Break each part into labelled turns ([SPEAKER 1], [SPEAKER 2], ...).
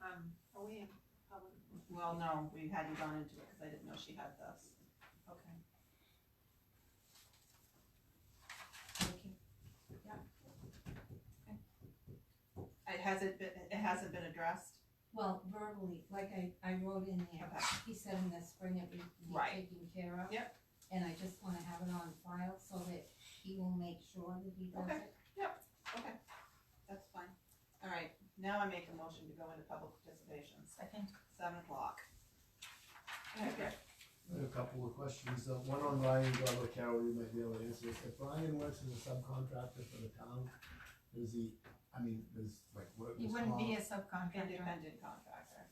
[SPEAKER 1] Um, well, no, we hadn't gone into it, cause I didn't know she had this. Okay. Thank you. Yeah. Okay. It hasn't been, it hasn't been addressed?
[SPEAKER 2] Well, verbally, like I, I wrote in there,
[SPEAKER 1] Okay.
[SPEAKER 2] he said in the spring it would be
[SPEAKER 1] Right.
[SPEAKER 2] taken care of.
[SPEAKER 1] Yep.
[SPEAKER 2] And I just wanna have it on file so that he will make sure that he does
[SPEAKER 1] Okay.
[SPEAKER 2] it.
[SPEAKER 1] Okay, that's fine. All right, now I make a motion to go into public participation,
[SPEAKER 3] Second.
[SPEAKER 1] seven o'clock. Okay,
[SPEAKER 4] I have a couple of questions, uh, one on Ryan Glover Carroll, you might be able to answer this, if Ryan works as a subcontractor for the town, does he, I mean, does like work
[SPEAKER 3] He
[SPEAKER 4] this
[SPEAKER 3] wouldn't be a subcontractor,
[SPEAKER 1] independent contractor.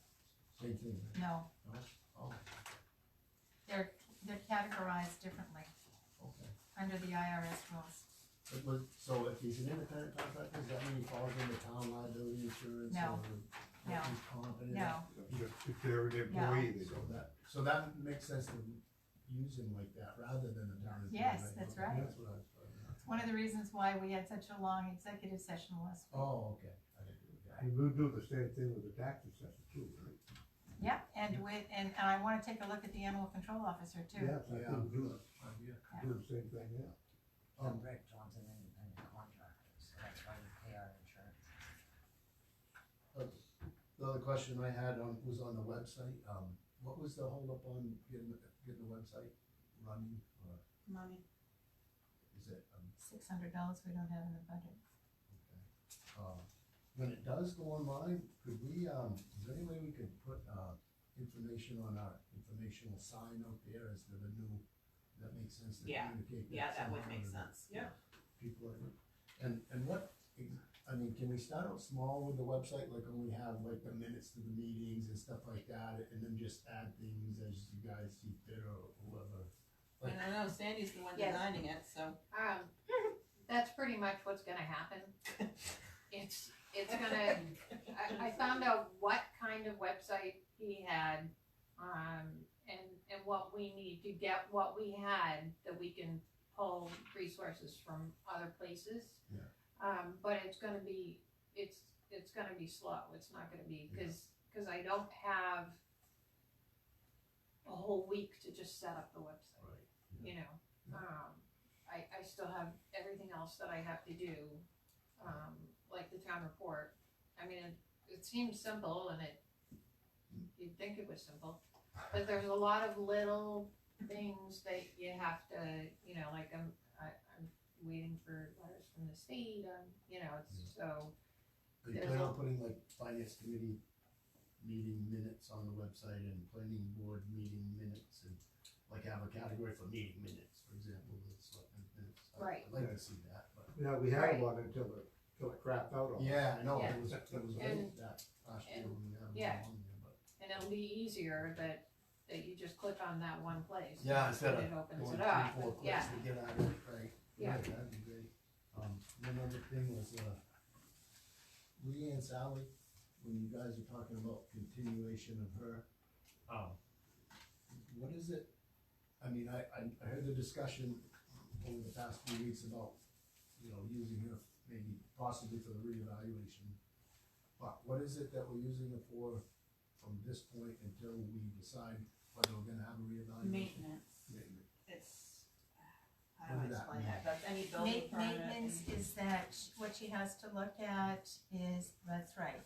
[SPEAKER 4] Same thing, right?
[SPEAKER 3] no,
[SPEAKER 4] oh,
[SPEAKER 3] they're, they're categorized differently
[SPEAKER 4] okay,
[SPEAKER 3] under the IRS rules.
[SPEAKER 4] But was- so if he's an independent contractor, does that mean he falls under town liability insurance
[SPEAKER 3] No.
[SPEAKER 4] or workers' comp and
[SPEAKER 3] No,
[SPEAKER 5] If- If they're an employee, they
[SPEAKER 4] So
[SPEAKER 5] don't.
[SPEAKER 4] that, so that makes sense to use him like that, rather than the town. is doing
[SPEAKER 3] Yes, that's
[SPEAKER 4] Okay,
[SPEAKER 3] right.
[SPEAKER 4] That's what I was trying to.
[SPEAKER 3] it's one of the reasons why we had such a long executive session last week.
[SPEAKER 4] Oh, okay, I didn't do that.
[SPEAKER 5] And we'll do the same thing with the tax assessor too, right?
[SPEAKER 3] Yeah, and with, and, and I wanna take a look at the animal control officer too.
[SPEAKER 5] Yeah, so I
[SPEAKER 4] Yeah.
[SPEAKER 5] think we'll do it,
[SPEAKER 4] Um, yeah.
[SPEAKER 5] do the same thing now.
[SPEAKER 6] Um, Rick John's an independent contractor, so that's why we pay our insurance.
[SPEAKER 4] Uh, The other question I had on, was on the website, um, what was the holdup on getting, the- getting the website running, or
[SPEAKER 1] Money.
[SPEAKER 4] is it, um,
[SPEAKER 3] Six hundred dollars we don't have in the budget.
[SPEAKER 4] okay. Uh, When it does go online, could we, um, is there any way we could put, uh, information on our informational sign out there as the new, that makes sense to
[SPEAKER 1] Yeah.
[SPEAKER 4] communicate?
[SPEAKER 1] Yeah, that would make
[SPEAKER 4] somehow?
[SPEAKER 1] sense, yeah.
[SPEAKER 4] people are, and, and what, I mean, can we start out small with the website, like only have like the minutes to the meetings and stuff like that, and then just add things as you guys see fit or whoever?
[SPEAKER 1] And I know Sandy's the one
[SPEAKER 7] Yes.
[SPEAKER 1] designing it, so.
[SPEAKER 7] Um, that's pretty much what's gonna happen. It's, it's gonna, I, I found out what kind of website he had, um, and, and what we need to get what we had that we can pull resources from other places.
[SPEAKER 4] Yeah.
[SPEAKER 7] Um, but it's gonna be, it's, it's gonna be slow, it's not gonna be, cause, cause I don't have a whole week to just set up the website
[SPEAKER 4] Right.
[SPEAKER 7] you know, um, I, I still have everything else that I have to do, um, like the town report. I mean, it, it seems simple and it, you'd think it was simple, but there's a lot of little things that you have to, you know, like I'm, I, I'm waiting for letters from the state, um, you know,
[SPEAKER 4] Mm.
[SPEAKER 7] it's so,
[SPEAKER 4] Are you
[SPEAKER 7] There's
[SPEAKER 4] planning
[SPEAKER 7] a-
[SPEAKER 4] on putting like finance committee meeting minutes on the website and planning board meeting minutes and like have a category for meeting minutes, for example, that's what, minutes. I-
[SPEAKER 7] Right.
[SPEAKER 4] I'd like to see that, but,
[SPEAKER 5] Yeah, we had
[SPEAKER 7] Right.
[SPEAKER 5] one until it, until it crapped out on. us.
[SPEAKER 4] yeah, I know,
[SPEAKER 7] Yeah.
[SPEAKER 4] it was, it was
[SPEAKER 7] And-
[SPEAKER 4] late that last year
[SPEAKER 7] and-
[SPEAKER 4] when we had
[SPEAKER 7] yeah.
[SPEAKER 4] it on there, but.
[SPEAKER 7] and it'll be easier that, that you just click on that one place.
[SPEAKER 4] Yeah, instead
[SPEAKER 7] And
[SPEAKER 4] of
[SPEAKER 7] it opens
[SPEAKER 4] Going
[SPEAKER 7] it
[SPEAKER 4] three,
[SPEAKER 7] up,
[SPEAKER 4] four
[SPEAKER 7] yeah.
[SPEAKER 4] clicks to get out of it, right?
[SPEAKER 7] Yeah.
[SPEAKER 4] Right, That'd be great. Um, one other thing was, uh, Lee and Sally, when you guys were talking about continuation of her, um, what is it? I mean, I, I, I heard the discussion over the past few weeks about, you know, using her maybe possibly for the reevaluation. But what is it that we're using her for from this point until we decide whether we're gonna have a reevaluation?
[SPEAKER 1] Maintenance, it's, how
[SPEAKER 4] What
[SPEAKER 1] do I
[SPEAKER 4] does that
[SPEAKER 1] explain
[SPEAKER 4] mean?
[SPEAKER 1] that, that's any
[SPEAKER 3] Ma-
[SPEAKER 1] building permit.
[SPEAKER 3] Maintenance
[SPEAKER 1] and-
[SPEAKER 3] is that, sh- what she has to look at is, that's right,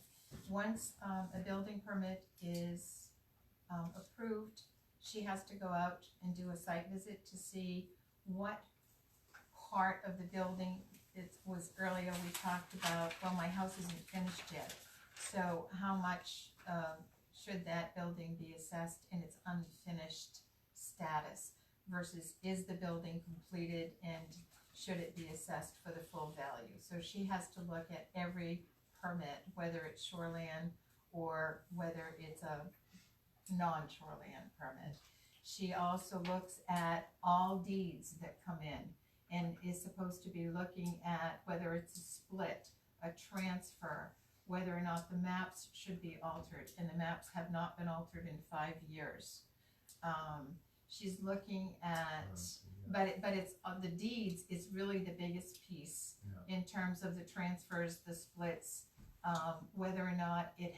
[SPEAKER 3] once, um, a building permit is, um, approved, she has to go out and do a site visit to see what part of the building, it was earlier, we talked about, well, my house isn't finished yet. So how much, um, should that building be assessed in its unfinished status versus is the building completed and should it be assessed for the full value? So she has to look at every permit, whether it's shoreland or whether it's a non-shoreland permit. She also looks at all deeds that come in and is supposed to be looking at whether it's a split, a transfer, whether or not the maps should be altered, and the maps have not been altered in five years. Um, she's looking at
[SPEAKER 4] Yeah,
[SPEAKER 3] but it, but it's, of the deeds is really the biggest piece
[SPEAKER 4] yeah.
[SPEAKER 3] in terms of the transfers, the splits, um, whether or not it